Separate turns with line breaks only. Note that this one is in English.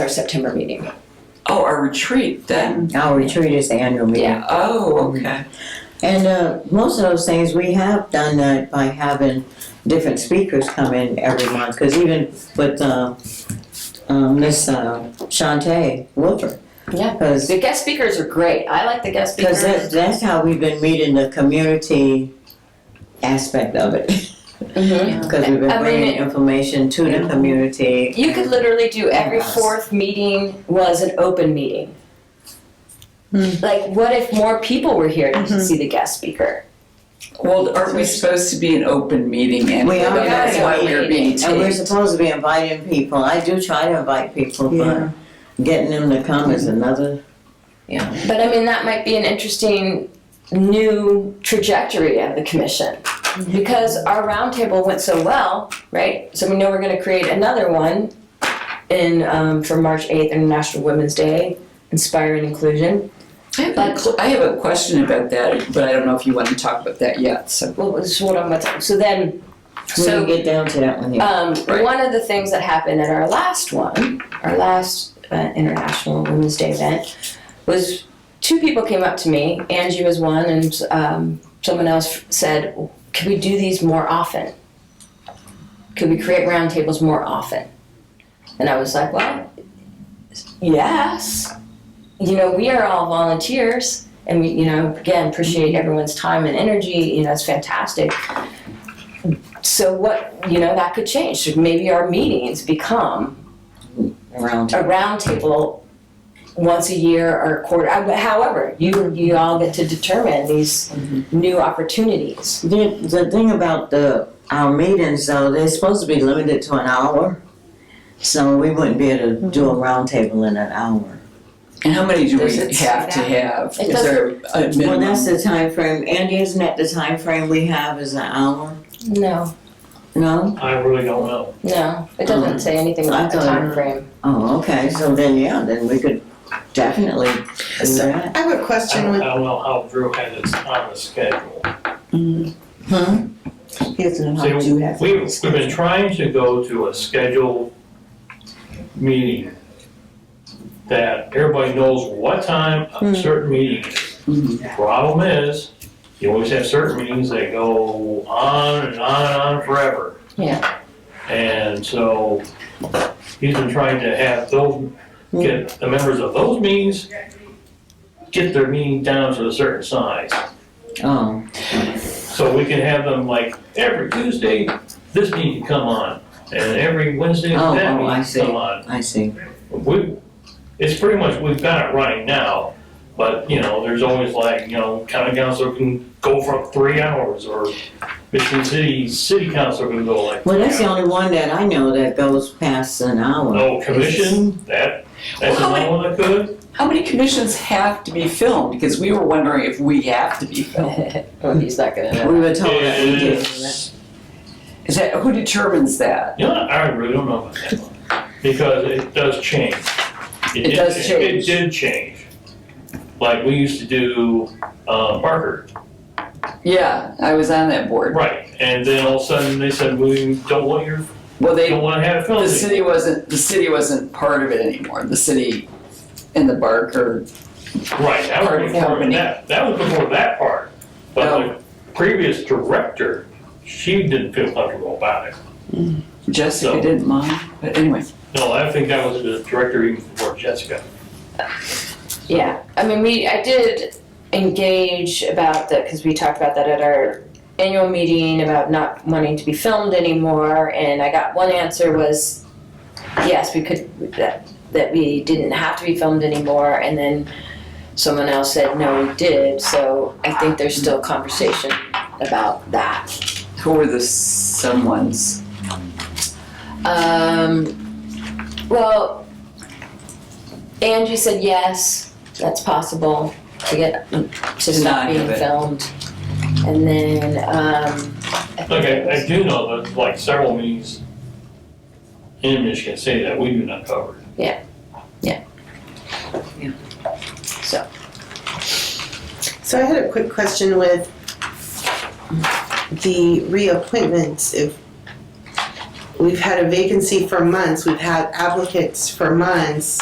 our September meeting.
Oh, our retreat then.
Our retreat is the annual meeting.
Yeah.
Oh, okay.
And uh, most of those things, we have done that by having different speakers come in every month. Because even with uh, uh, Miss uh, Shantae Wilford.
Yeah.
Because
The guest speakers are great. I like the guest speakers.
that's, that's how we've been meeting the community aspect of it.
Mhm.
Because we've
I mean,
been bringing information to the community.
You could literally do every
Yes.
fourth meeting was an open meeting. Like, what if more people were here to see the guest speaker?
Well, aren't we supposed to be an open meeting anyway?
We are.
That's why we're being
And we're
taped.
supposed to be inviting people. I do try to invite people, but getting them to come is another.
But I mean, that might be an interesting new trajectory of the commission. Because our roundtable went so well, right? So we know we're gonna create another one in, um, for March eighth, International Women's Day, inspiring inclusion.
I have, a cl- I have a question about that, but I don't know if you want to talk about that yet, so.
Well, this is what I'm about to, so then,
When
so.
you get down to that one, yeah.
Um,
Right.
One of the things that happened at our last one, our last uh, International Women's Day event, was two people came up to me. Angie was one, and um, someone else said, "Can we do these more often? Could we create roundtables more often?" And I was like, "Well, yes. You know, we are all volunteers." And we, you know, again, appreciate everyone's time and energy. You know, it's fantastic. So what you know that could change. So maybe our meetings become
around.
a roundtable once a year or a quarter. I- However, you you all get to determine these new opportunities.
The, the thing about the, our meetings though, they're supposed to be limited to an hour. So we wouldn't be able to do a roundtable in an hour.
And how many do we
Does it say
have to
that?
have?
It
Is there a minimum?
Well, that's the time frame. Andy, isn't that the time frame we have is an hour?
No,
No?
I really don't know.
no, it doesn't say anything
I
about the
thought-
time frame.
Oh, okay, so then, yeah, then we could definitely do that.
I have a
I
question
don't,
with,
I don't know how Drew had it on the schedule.
Huh?
See, we, we've been trying to go to a scheduled meeting that everybody knows what time a certain meeting
Mm-hmm.
is. Problem is, you always have certain meetings that go on and on and on forever.
Yeah.
And so he's been trying to have those, get the members of those meetings, get their meeting down to a certain size.
Oh,
So we can have them like every Tuesday, this meeting come on, and every Wednesday,
Oh,
that
oh, I see.
meeting come on.
I see.
We, it's pretty much, we've got it running now, but, you know, there's always like, you know, county council can go for three hours, or Michigan City, city council can go like.
Well,
three
that's the
hours.
only one that I know that goes past an hour.
No commission, that, that's
Well, how
another one that could,
How many commissions have to be filmed? Because we were wondering if we have to be filmed.
oh, he's not gonna know.
We were told that we did.
is,
Is that, who determines that?
you know, I really don't know about that one, because it does change.
It
did
does
It
change.
did change. Like, we used to do, uh, Barker,
Yeah, I was on that board.
right, and then all of a sudden, they said, we don't want your,
Well,
we
they
don't wanna have
The
films.
city wasn't, the city wasn't part of it anymore, the city and the Barker.
Right, that
Part of
was before,
company.
that, that was before that part,
No.
but the previous director, she didn't feel comfortable about it.
Jessica
So-
didn't mind, but anyway.
No, I think that was the director even before Jessica.
Yeah, I mean, we I did engage about that because we talked about that at our annual meeting about not wanting to be filmed anymore, and I got one answer was yes, we could that that we didn't have to be filmed anymore, and then someone else said no, we did. So I think there's still conversation about that.
Who were the someones?
Um, well, Angie said yes, that's possible to get to
Denied
stop being
of it.
filmed. And then, um, I think
Like,
it
I,
was-
I do know that, like, several meetings in Michigan City that we do not cover.
so I had a quick question with the reappointments, if we've had a vacancy for months, we've had applicants for months,